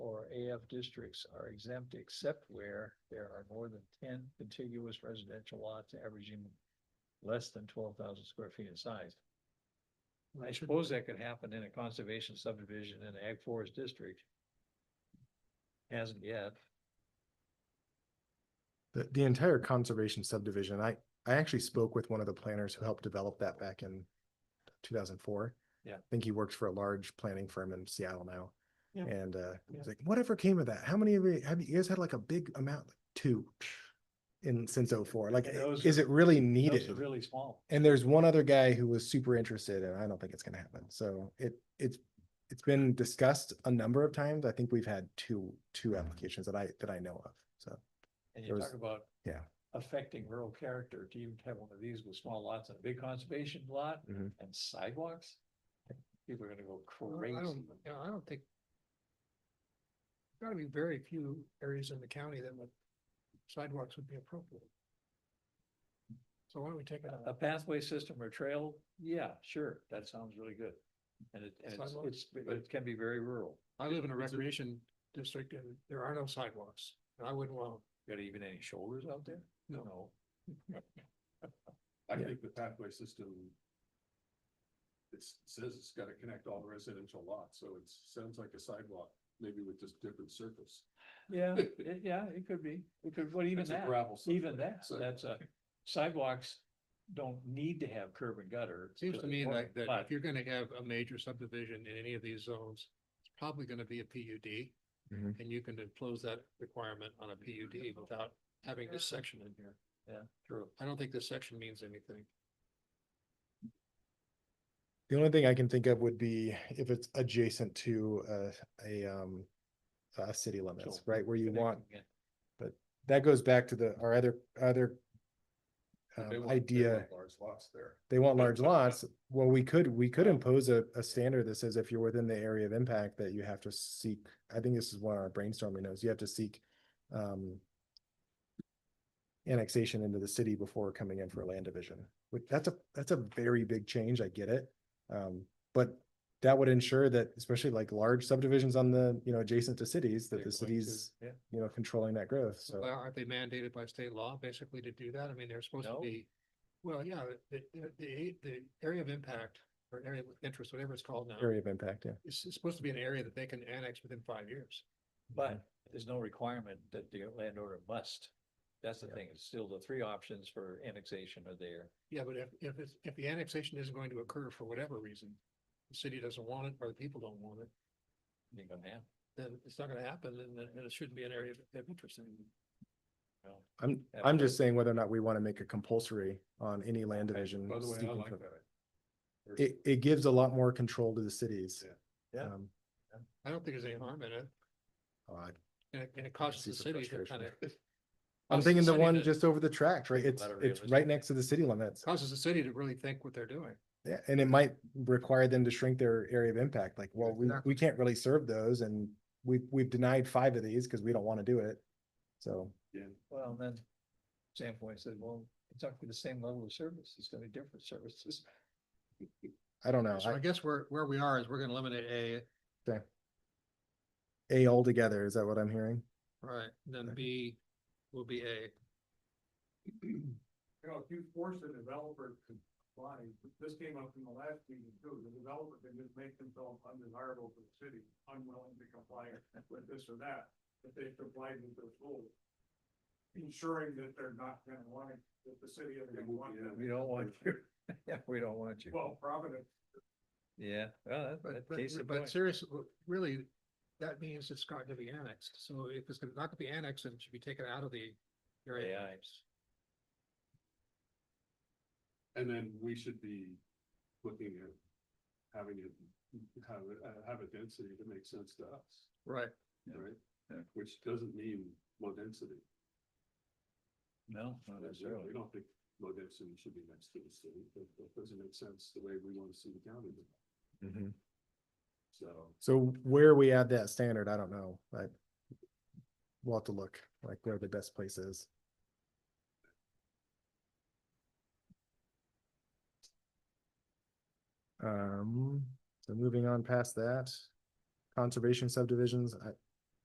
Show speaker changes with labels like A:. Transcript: A: CIF districts are exempt except where there are more than ten contiguous residential lots averaging less than twelve thousand square feet in size. I suppose that could happen in a conservation subdivision in an ag forest district. Hasn't yet.
B: The, the entire conservation subdivision, I, I actually spoke with one of the planners who helped develop that back in two thousand four.
A: Yeah.
B: I think he works for a large planning firm in Seattle now.
A: Yeah.
B: And, uh,
A: Yeah.
B: he's like, whatever came of that? How many of you, have you guys had like a big amount, like two? In, since oh four, like,
A: And those
B: is
A: are-
B: it really
A: Those
B: needed?
A: are really small.
B: And there's one other guy who was super interested and I don't think it's gonna happen. So it, it's, it's been discussed a number of times. I think we've had two, two
A: Mm-hmm.
B: applications that I, that I know of, so.
A: And
B: There
A: you
B: was-
A: talk about.
B: yeah.
A: Affecting rural character to even have one of these with small lots and a big conservation lot
B: Mhm.
A: and sidewalks. People are gonna go
C: Well,
A: crazy.
C: I don't, yeah, I don't think. Gotta be very few areas in the county that would sidewalks would be appropriate. So why don't we take it
A: A
C: out?
A: pathway system or trail, yeah, sure, that sounds really good. And it, and it's-
C: Sidewalk?
A: it's, but it can be very rural,
C: I live in a recreation district and there are no sidewalks. And I wouldn't want,
A: got even any shoulders out there?
C: No.
D: I
B: Yeah.
D: think the pathway system. It's, says it's gotta connect all the residential lots, so it sounds like a sidewalk, maybe with just different surface.
A: Yeah, it, yeah, it could be, it could, but even
D: It's a
A: that,
D: gravel
A: even
D: sidewalk,
A: that,
D: so-
A: that's a, sidewalks don't need to have curb and gutter.
C: seems to me like that
A: But
C: if you're gonna have a major subdivision in any of these zones, it's probably gonna be a PUD.
B: Mhm.
C: And you can impose that requirement on a PUD without having this section in here.
A: Yeah, true.
C: I don't think this section means anything.
B: The only thing I can think of would be if it's adjacent to uh, a, um, a city limits,
A: Sure.
B: right, where you want,
A: Connecting it.
B: that goes back to the, our other, other
D: They
B: um,
D: want- they want
B: idea,
D: Large lots there.
B: they want large lots, well, we could, we could impose a, a standard that says if you're within the area of impact that you have to seek, I think this is one of our brainstorming knows, you have to seek, um, annexation into the city before coming in for a land division, which that's a, that's a very big change, I get it. Um, but that would ensure that especially like large subdivisions on the, you know, adjacent to cities, that
C: They're
B: the
C: going to-
B: cities,
A: Yeah,
B: you know, controlling that growth, so.
C: Well, aren't they mandated by state law basically to do that? I mean, they're supposed to
A: No.
C: be, well, yeah, the, the- the, the area of impact or area of interest, whatever it's called now,
B: Area of impact, yeah.
C: it's it's supposed to be an area that they can annex within five years.
A: but there's no requirement that the landowner must. That's the thing, it's still the three options for annexation are there.
C: Yeah, but if, if it's, if the annexation isn't going to occur for whatever reason, the city doesn't want it or the people don't want it,
A: You're gonna have,
C: then it's not gonna happen and, then- and it shouldn't be an area of- of interest anymore.
A: you know,
B: I'm,
A: Yeah,
B: I'm
A: but-
B: just saying whether or not we want to make it compulsory on any land
D: Hey,
B: division.
D: By the way, I
B: seeking
D: like
B: for-
D: that.
B: It, it gives a lot more control to the cities.
A: Yeah. Yeah.
B: Um,
C: I don't think there's any harm in it.
B: oh, I-
C: And it, and it costs
B: see
C: the
B: some
C: city to kind
B: frustration.
C: of.
B: I'm thinking the one just over the tract, right?
A: Think
B: It's,
A: about it
B: it's right
A: realistically.
B: next to the city limits.
C: Causes the city to really think what they're doing.
B: Yeah, and it might require them to shrink their area of impact, like, well, we,
C: Exactly.
B: we can't really serve those and we, we've denied five of these because we don't want to do it. So,
A: Well, then Sam Point said, well, it's not gonna be the same level of service, it's gonna be different services.
B: I don't know.
C: So I guess where, where we are is we're gonna eliminate A
B: A altogether, is that what I'm hearing?
C: Right, then
B: Okay.
C: B will be A.
D: You know, if you force the developer to comply, this came up in the last meeting too, the developer can just make themselves undesirable to the city, unwilling to comply with this or that, if they comply with those rules. Ensuring that they're not gonna want it, that the city is gonna want
A: We
D: them.
A: don't want you, yeah, we don't want you.
D: Well, Providence,
A: Yeah, well, that-
C: But,
A: that case in
C: but,
A: point.
C: but seriously, really, that means it's got to be annexed. So if it's gonna- not gonna be annexed, then it should be taken out of the area.
A: AI.
D: And then we should be looking at having it, have, it- uh, have a density that makes sense to us,
C: Right,
A: Yeah.
D: right?
A: Yeah.
D: Which doesn't mean low density.
A: No, not
D: We
A: necessarily.
D: don't think low density should be next to the city, but that doesn't make sense the way we want to see the county. developed.
A: Mm-hmm.
D: So,
B: So where we add that standard, I don't know, like. We'll have to look, like where the best place is. Um, so moving on past that, conservation subdivisions, I,